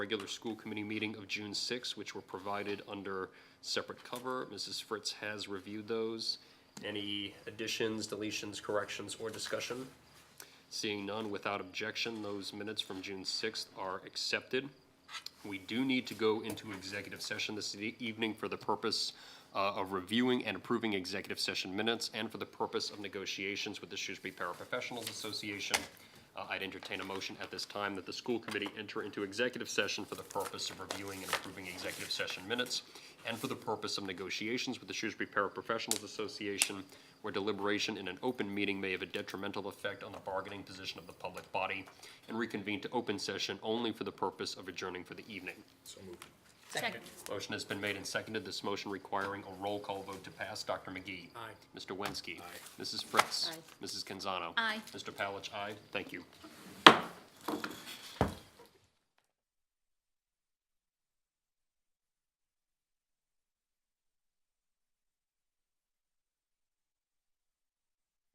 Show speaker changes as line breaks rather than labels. regular school committee meeting of June 6, which were provided under separate cover. Mrs. Fritz has reviewed those. Any additions, deletions, corrections, or discussion? Seeing none, without objection, those minutes from June 6th are accepted. We do need to go into executive session this e- evening for the purpose uh, of reviewing and approving executive session minutes and for the purpose of negotiations with the Shrewsbury Paraprofessionals Association. Uh, I'd entertain a motion at this time that the school committee enter into executive session for the purpose of reviewing and approving executive session minutes and for the purpose of negotiations with the Shrewsbury Paraprofessionals Association where deliberation in an open meeting may have a detrimental effect on the bargaining position of the public body and reconvene to open session only for the purpose of adjourning for the evening.
Second.
Motion has been made and seconded, this motion requiring a roll call vote to pass. Dr. McGee. Aye. Mr. Wensky. Aye. Mrs. Fritz.
Aye.
Mrs. Canzano.
Aye.
Mr. Palach, aye. Thank you.